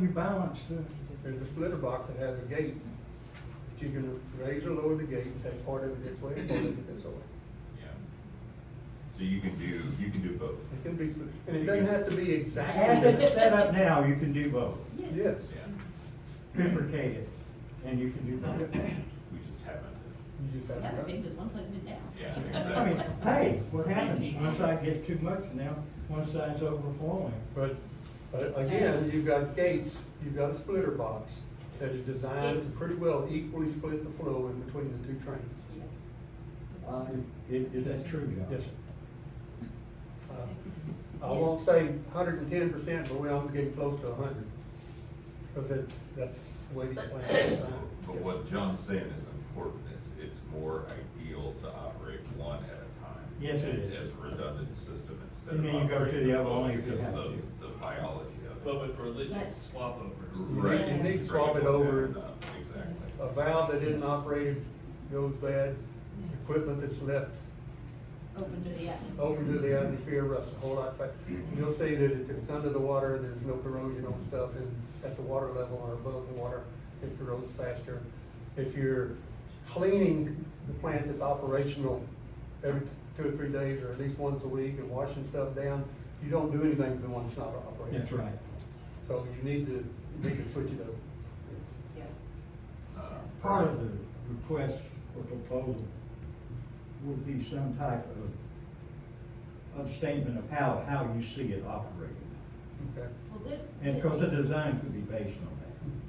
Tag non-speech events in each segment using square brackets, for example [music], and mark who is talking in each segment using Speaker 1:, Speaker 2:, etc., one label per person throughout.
Speaker 1: balance too.
Speaker 2: There's a splitter box that has a gate, that you can raise or lower the gate and take part of it this way and part of it this way.
Speaker 3: Yeah. So you can do, you can do both.
Speaker 2: It can be, split- and it doesn't have to be
Speaker 1: As
Speaker 2: exactly,
Speaker 1: it's set up now, you can do both,
Speaker 2: yes,
Speaker 3: Yeah,
Speaker 1: bifurcate it, and you can do both.
Speaker 3: we just haven't.
Speaker 2: you just have
Speaker 4: Yeah,
Speaker 2: to.
Speaker 4: because one side's been down. [laughs]
Speaker 3: Yeah,
Speaker 1: I mean,
Speaker 3: exactly.
Speaker 1: hey, what happens, one side gets too much, and now one side's overflowing.
Speaker 2: But, but again, you've got gates, you've got a splitter box that is designed to
Speaker 4: It's-
Speaker 2: pretty well equally split the flow in between the two trains.
Speaker 4: Yeah.
Speaker 1: Uh, is, is that true, y'all?
Speaker 2: Yes, sir. Uh, I won't say hundred and ten percent, but we're all getting close to hundred. Cause it's, that's the way these plans are designed.
Speaker 3: But
Speaker 2: Yes.
Speaker 3: what John's saying is important, it's, it's more ideal to operate one at a time.
Speaker 1: Yes, it is.
Speaker 3: As a redundant system instead of.
Speaker 1: And then you go to
Speaker 3: operating
Speaker 1: the other
Speaker 3: both
Speaker 1: one if you
Speaker 3: because
Speaker 1: have
Speaker 3: of
Speaker 1: to.
Speaker 3: The the biology
Speaker 5: But
Speaker 3: of it.
Speaker 5: with religious swap overs.
Speaker 3: Right.
Speaker 4: you need
Speaker 2: to swap it over.
Speaker 3: Exactly.
Speaker 2: A valve that isn't operated goes bad, equipment that's left
Speaker 4: Open to the atmosphere.
Speaker 2: open to the atmosphere rusts a whole lot. fa- You'll see that if it's under the water, there's no corrosion on stuff and at the water level or above the water, it corrodes faster. If you're cleaning the plant that's operational every t- two or three days or at least once a week and washing stuff down, you don't do anything to the one that's not operating.
Speaker 1: That's right.
Speaker 2: So you need to, you need to switch it up.
Speaker 4: Yeah.
Speaker 3: Uh,
Speaker 1: Part of the request for proposal will be some type of, of statement of how, how you see it operating.
Speaker 2: Okay.
Speaker 4: Well, this.
Speaker 1: And because the design could be based on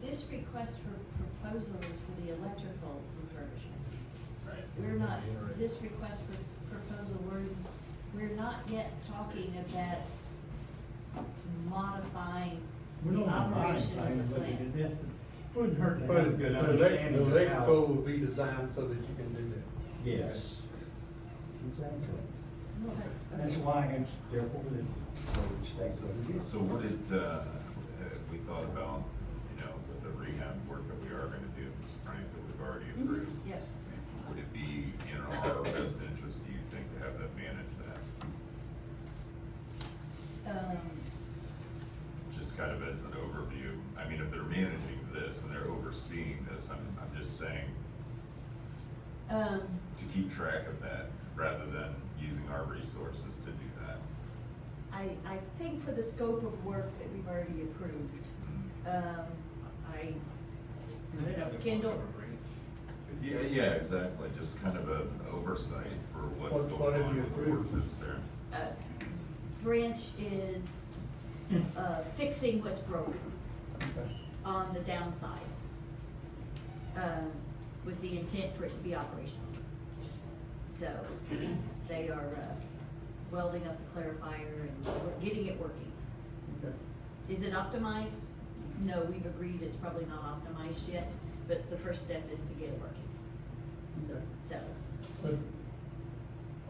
Speaker 4: This request for proposal is for the electrical refurbishment.
Speaker 3: Right.
Speaker 4: We're not, this request for proposal, we're, we're not yet talking about modifying
Speaker 1: that. We
Speaker 4: the
Speaker 1: don't have a lot of
Speaker 4: operation
Speaker 1: things,
Speaker 4: of the
Speaker 1: but it-
Speaker 4: plant.
Speaker 1: it Wouldn't hurt to have a
Speaker 2: But
Speaker 1: good
Speaker 2: the elec- the
Speaker 1: understanding of how.
Speaker 2: electrical will be designed so that you can do that.
Speaker 1: Yes. Exactly.
Speaker 4: Well, that's-
Speaker 1: That's why it's therefore that it stays over here.
Speaker 3: So what did, uh, have we thought about, you know, with the rehab work that we are gonna do, Frank, that we've already approved?
Speaker 4: Mhm, yes.
Speaker 3: Would it be in our best interest, do you think, to have that manage that?
Speaker 4: Um,
Speaker 3: Just kind of as an overview, I mean, if they're managing this and they're overseeing this, I'm, I'm just saying
Speaker 4: um,
Speaker 3: to keep track of that rather than using our resources to do that.
Speaker 4: I, I think for the scope of work that we've already approved,
Speaker 2: Mm-hmm.
Speaker 4: um, I, Kendall,
Speaker 3: Yeah, yeah, exactly, just kind of an oversight for what's
Speaker 2: What- what
Speaker 3: going
Speaker 2: have
Speaker 3: on
Speaker 2: you
Speaker 3: with the work
Speaker 2: approved?
Speaker 3: that's there.
Speaker 4: uh, Branch is, uh, fixing what's broken
Speaker 2: Okay.
Speaker 4: on the downside. Um, with the intent for it to be operational. So, they are, uh, welding up the clarifier and we're getting it working.
Speaker 2: Okay.
Speaker 4: Is it optimized? No, we've agreed it's probably not optimized yet, but the first step is to get it working,
Speaker 2: Okay.
Speaker 4: so.
Speaker 2: But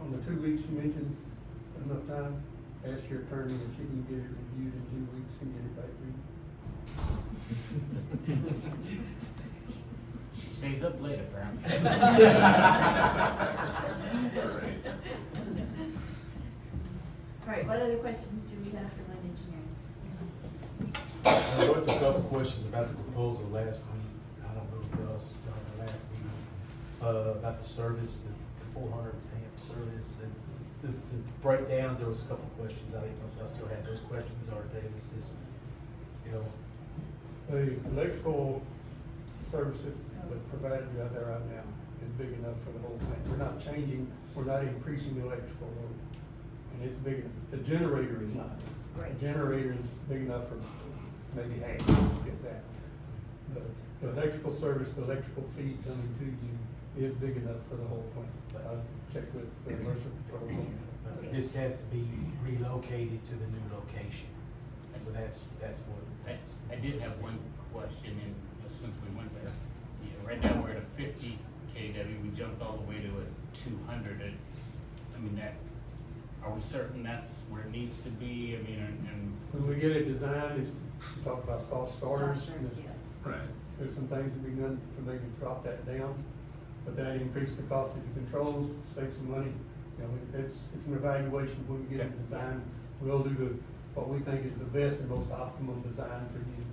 Speaker 2: on the two weeks you mentioned, enough time, ask your attorney if she can get it reviewed in two weeks and get it back to you.
Speaker 1: [laughs]
Speaker 6: She stays up
Speaker 4: [laughs]
Speaker 6: late apparently.
Speaker 3: Right.
Speaker 4: All right, what other questions do we have for land engineering?
Speaker 7: There was a couple of questions about the proposal last week, I don't know if y'all was done the last meeting, uh, about the service, the- the four hundred amp service, and the, the breakdowns, there was a couple of questions, I think, I still had those questions, or Davis is, you know,
Speaker 2: The electrical service that that's provided out there right now is big enough for the whole thing. We're not changing, we're not increasing the electrical load. And it's big enough. The generator is not.
Speaker 4: Right.
Speaker 2: The Generator is big enough for maybe half, if that. But the electrical service, the electrical feed coming to you is big enough for the whole plant. I checked with the Mercer Control on that.
Speaker 4: Okay.
Speaker 7: uh, this has to be relocated to the new location. So that's, that's what,
Speaker 6: That's, I did have one question, and you know, since we went there, you know, right now we're at a fifty KW, we jumped all the way to a two hundred, and, I mean, that, are we certain that's where it needs to be, I mean, and, and
Speaker 2: When we get it designed, it's, we talk about soft starters.
Speaker 4: Soft starters, yeah.
Speaker 3: Right.
Speaker 2: There's some things that we can, done to maybe drop that down, but that increases the cost of the controls, save some money. You know, it's, it's an evaluation when we get it
Speaker 6: Okay.
Speaker 2: designed. We'll do the, what we think is the best and most optimum design for you